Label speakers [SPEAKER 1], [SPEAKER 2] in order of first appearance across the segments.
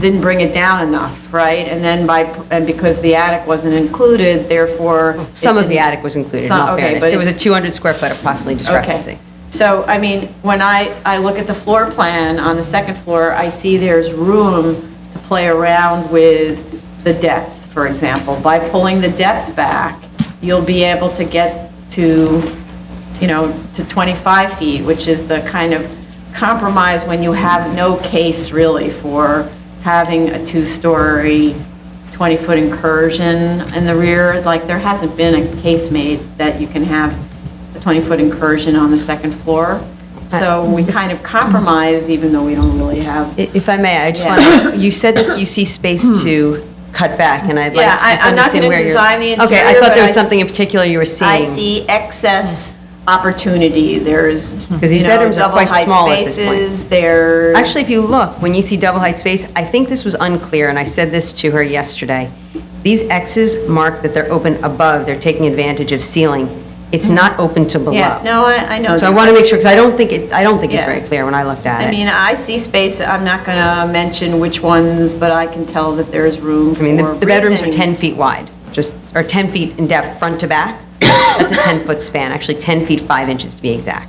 [SPEAKER 1] didn't bring it down enough, right? And then by, and because the attic wasn't included, therefore. it
[SPEAKER 2] Some of the
[SPEAKER 1] didn't-
[SPEAKER 2] attic was included, in
[SPEAKER 1] Some-
[SPEAKER 2] all
[SPEAKER 1] okay,
[SPEAKER 2] fairness.
[SPEAKER 1] but
[SPEAKER 2] There was
[SPEAKER 1] it-
[SPEAKER 2] a 200 square foot approximately discrepancy.
[SPEAKER 1] Okay. So, I mean, when I, I look at the floor plan on the second floor, I see there's room to play around with the depth, for example. By pulling the depth back, you'll be able to get to, you know, to 25 feet, which is the kind of compromise when you have no case really for having a two-story, 20-foot incursion in the rear. Like, there hasn't been a case made that you can have a 20-foot incursion on the second floor.
[SPEAKER 2] Uh,
[SPEAKER 1] So we kind of compromise, even though we don't really have.
[SPEAKER 2] I- If I may, I just
[SPEAKER 1] Yeah. Hmm.
[SPEAKER 2] want, to you said that you see space to cut back, and I'd like
[SPEAKER 1] Yeah,
[SPEAKER 2] to just
[SPEAKER 1] I- I'm not
[SPEAKER 2] understand
[SPEAKER 1] gonna
[SPEAKER 2] where you're...
[SPEAKER 1] design the
[SPEAKER 2] Okay,
[SPEAKER 1] interior,
[SPEAKER 2] I thought
[SPEAKER 1] but
[SPEAKER 2] there was
[SPEAKER 1] I
[SPEAKER 2] something in
[SPEAKER 1] s-
[SPEAKER 2] particular you were seeing.
[SPEAKER 1] I see excess opportunity, there's,
[SPEAKER 2] Mm-hmm. these
[SPEAKER 1] you know,
[SPEAKER 2] bedrooms are
[SPEAKER 1] double
[SPEAKER 2] quite small at
[SPEAKER 1] height
[SPEAKER 2] this point.
[SPEAKER 1] spaces, there's.
[SPEAKER 2] Actually, if you look, when you see double height space, I think this was unclear, and I said this to her yesterday. These X's mark that they're open above, they're taking advantage of ceiling. It's not open to below.
[SPEAKER 1] Mm-hmm. Yeah, no, I, I know.
[SPEAKER 2] So I
[SPEAKER 1] that.
[SPEAKER 2] want to make sure, because I don't think it, I don't think it's
[SPEAKER 1] Yeah.
[SPEAKER 2] very clear when I looked at it.
[SPEAKER 1] I mean, I see space, I'm not going to mention which ones, but I can tell that there's room for
[SPEAKER 2] I mean, the the bedrooms are
[SPEAKER 1] breathing.
[SPEAKER 2] 10 feet wide, just, or 10 feet in depth, front to back. That's a 10-foot span, actually 10 feet 5 inches to be exact.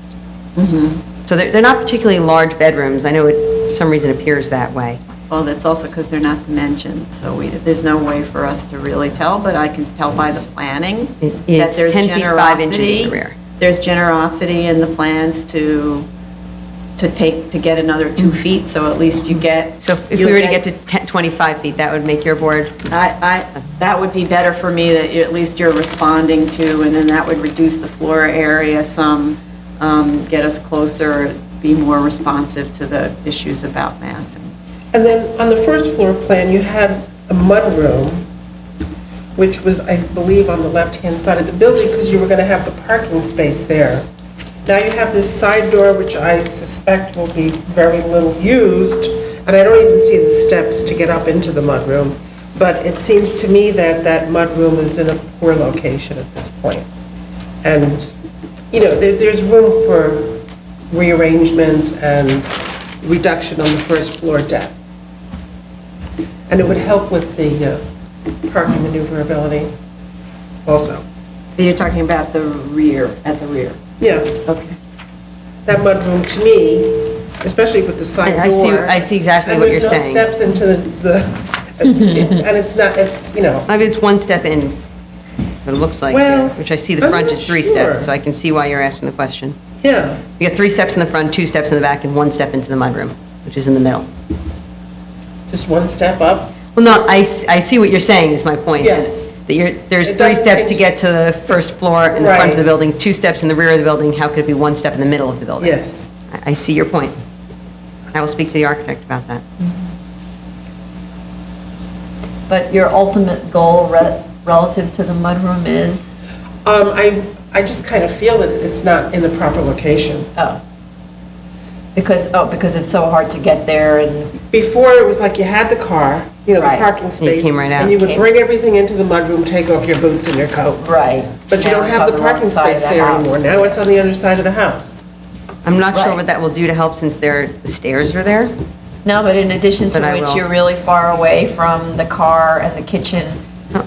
[SPEAKER 3] Mm-hmm.
[SPEAKER 2] So they're, they're not particularly large bedrooms. I know it, for some reason, appears that way.
[SPEAKER 1] Well, that's also because they're not dimensioned, so we, there's no way for us to really tell, but I can tell by the planning.
[SPEAKER 2] It-
[SPEAKER 1] that
[SPEAKER 2] it's
[SPEAKER 1] there's
[SPEAKER 2] 10 feet, five inches in the
[SPEAKER 1] generosity-
[SPEAKER 2] rear.
[SPEAKER 1] There's generosity in the plans to, to take, to get another two feet, Mm-hmm. so at least you get.
[SPEAKER 2] So if if we
[SPEAKER 1] you'll
[SPEAKER 2] were to get to 10 25 feet, that would make your board,
[SPEAKER 1] I, I, that would be better for me, that you- at least you're responding to, and then that would reduce the floor area some, um, get us closer, be more responsive to the issues about massing.
[SPEAKER 3] And then on the first floor plan, you had a mudroom, which was, I believe, on the left-hand side of the building because you were going to have the parking space there. Now you have this side door, which I suspect will be very little used, and I don't even see the steps to get up into the mudroom. But it seems to me that that mudroom is in a poor location at this point. And, you know, there, there's room for rearrangement and reduction on the first floor deck. And it would help with the uh, parking maneuverability also.
[SPEAKER 1] So you're talking about the rear, at the rear?
[SPEAKER 3] Yeah,
[SPEAKER 1] Okay.
[SPEAKER 3] that mudroom to me, especially with the side door.
[SPEAKER 2] I- I see- I see exactly
[SPEAKER 3] and
[SPEAKER 2] what you're saying.
[SPEAKER 3] There's no steps into the- the, and it's not, it's, you know,
[SPEAKER 2] I mean, it's one step in, what it looks like here,
[SPEAKER 3] Well,
[SPEAKER 2] which I see the
[SPEAKER 3] I'm
[SPEAKER 2] front
[SPEAKER 3] not
[SPEAKER 2] is three steps,
[SPEAKER 3] sure.
[SPEAKER 2] so I can see why you're asking the question.
[SPEAKER 3] yeah.
[SPEAKER 2] You got three steps in the front, two steps in the back, and one step into the mudroom, which is in the middle.
[SPEAKER 3] Just one step up.
[SPEAKER 2] Well, no, I, s- I see what you're saying, is my point.
[SPEAKER 3] Yes.
[SPEAKER 2] That you're, there's
[SPEAKER 3] It
[SPEAKER 2] three
[SPEAKER 3] doesn't
[SPEAKER 2] steps
[SPEAKER 3] seem
[SPEAKER 2] to
[SPEAKER 3] to-
[SPEAKER 2] get to the first floor in the front of the
[SPEAKER 3] Right.
[SPEAKER 2] building, two steps in the rear of the building, how could it be one step in the middle of the building?
[SPEAKER 3] Yes.
[SPEAKER 2] I I see your point. I will speak to the architect about that.
[SPEAKER 1] But your ultimate goal re- relative to the mudroom is?
[SPEAKER 3] Um, I, I just kind of feel that it's not in the proper location.
[SPEAKER 1] Oh. Because, oh, because it's so hard to get there and,
[SPEAKER 3] Before, it was like you had the car, you know, the
[SPEAKER 1] Right.
[SPEAKER 3] parking
[SPEAKER 2] And you
[SPEAKER 3] space.
[SPEAKER 2] came right out.
[SPEAKER 3] And you would
[SPEAKER 1] Came.
[SPEAKER 3] bring everything into the mudroom, take off your boots and your coat.
[SPEAKER 1] right.
[SPEAKER 3] But you
[SPEAKER 1] Now
[SPEAKER 3] don't
[SPEAKER 1] it's
[SPEAKER 3] have
[SPEAKER 1] on
[SPEAKER 3] the
[SPEAKER 1] wrong
[SPEAKER 3] parking
[SPEAKER 1] side of
[SPEAKER 3] space
[SPEAKER 1] the
[SPEAKER 3] there
[SPEAKER 1] house.
[SPEAKER 3] anymore. Now it's on the other side of the house.
[SPEAKER 2] I'm not sure
[SPEAKER 1] Right.
[SPEAKER 2] what that will do to help since there, the stairs are there.
[SPEAKER 1] No, but in addition to
[SPEAKER 2] But I
[SPEAKER 1] which,
[SPEAKER 2] will.
[SPEAKER 1] you're really far away from the car and the kitchen.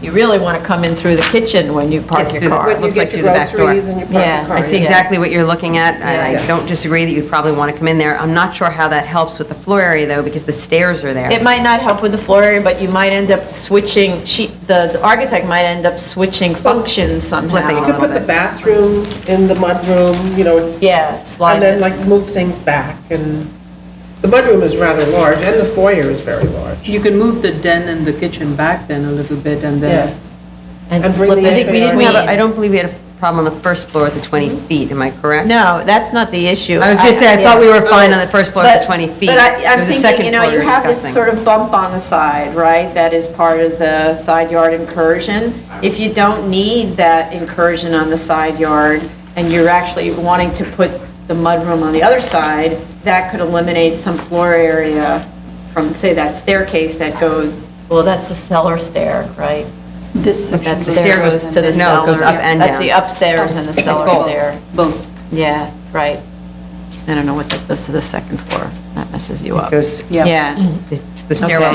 [SPEAKER 1] You really want to come in through the kitchen when you park
[SPEAKER 2] Yeah,
[SPEAKER 1] your
[SPEAKER 2] through the-
[SPEAKER 1] car.
[SPEAKER 2] It
[SPEAKER 3] When you
[SPEAKER 2] looks like
[SPEAKER 3] get your
[SPEAKER 2] through the back door.
[SPEAKER 3] groceries and you park
[SPEAKER 1] Yeah.
[SPEAKER 3] your car.
[SPEAKER 2] I see
[SPEAKER 1] yeah.
[SPEAKER 2] exactly what you're looking at, and I
[SPEAKER 1] Yeah.
[SPEAKER 2] don't disagree that you'd probably want to come in there. I'm not sure how that helps with the floor area, though, because the stairs are there.
[SPEAKER 1] It might not help with the floor area, but you might end up switching, she, the the architect might end up switching functions
[SPEAKER 2] Flipping
[SPEAKER 3] You
[SPEAKER 2] a
[SPEAKER 1] somehow.
[SPEAKER 3] could
[SPEAKER 2] little
[SPEAKER 3] put the
[SPEAKER 2] bit.
[SPEAKER 3] bathroom in the mudroom, you know, it's,
[SPEAKER 1] Yeah, slide
[SPEAKER 3] and then
[SPEAKER 1] it.
[SPEAKER 3] like move things back. And the mudroom is rather large and the foyer is very large.
[SPEAKER 4] You can move the den and the kitchen back then a little bit and then,
[SPEAKER 3] Yes.
[SPEAKER 1] and
[SPEAKER 3] and bring
[SPEAKER 1] slip
[SPEAKER 3] the
[SPEAKER 1] it
[SPEAKER 2] I think we didn't have, a- I
[SPEAKER 1] between.
[SPEAKER 2] don't believe we had a problem on the first floor with the 20
[SPEAKER 3] Mm-hmm.
[SPEAKER 2] feet, am I correct?
[SPEAKER 1] No, that's not the issue.
[SPEAKER 2] I was going to say, I thought we were fine on the first floor
[SPEAKER 1] But-
[SPEAKER 2] for 20 feet.
[SPEAKER 1] But I-
[SPEAKER 2] It
[SPEAKER 1] I'm
[SPEAKER 2] was the
[SPEAKER 1] thinking,
[SPEAKER 2] second
[SPEAKER 1] you know,
[SPEAKER 2] floor
[SPEAKER 1] you
[SPEAKER 2] we were
[SPEAKER 1] have this
[SPEAKER 2] discussing.
[SPEAKER 1] sort of bump on the side, right? That is part of the side yard incursion. If you don't need that incursion on the side yard, and you're actually wanting to put the mudroom on the other side, that could eliminate some floor area from, say, that staircase that goes, well, that's the cellar stair, right?
[SPEAKER 4] this section.
[SPEAKER 1] That
[SPEAKER 2] The
[SPEAKER 1] stair
[SPEAKER 2] stair
[SPEAKER 1] goes
[SPEAKER 2] goes-
[SPEAKER 1] to the cellar.
[SPEAKER 2] no, it goes up and
[SPEAKER 1] That's
[SPEAKER 2] down.
[SPEAKER 1] the upstairs and the
[SPEAKER 2] It's
[SPEAKER 1] cellar
[SPEAKER 2] both.
[SPEAKER 1] stair.
[SPEAKER 4] Both.
[SPEAKER 1] Yeah, right. I don't know what that does to the second floor. That messes you up.
[SPEAKER 2] Goes-
[SPEAKER 1] Yeah.
[SPEAKER 2] It's- The stairwell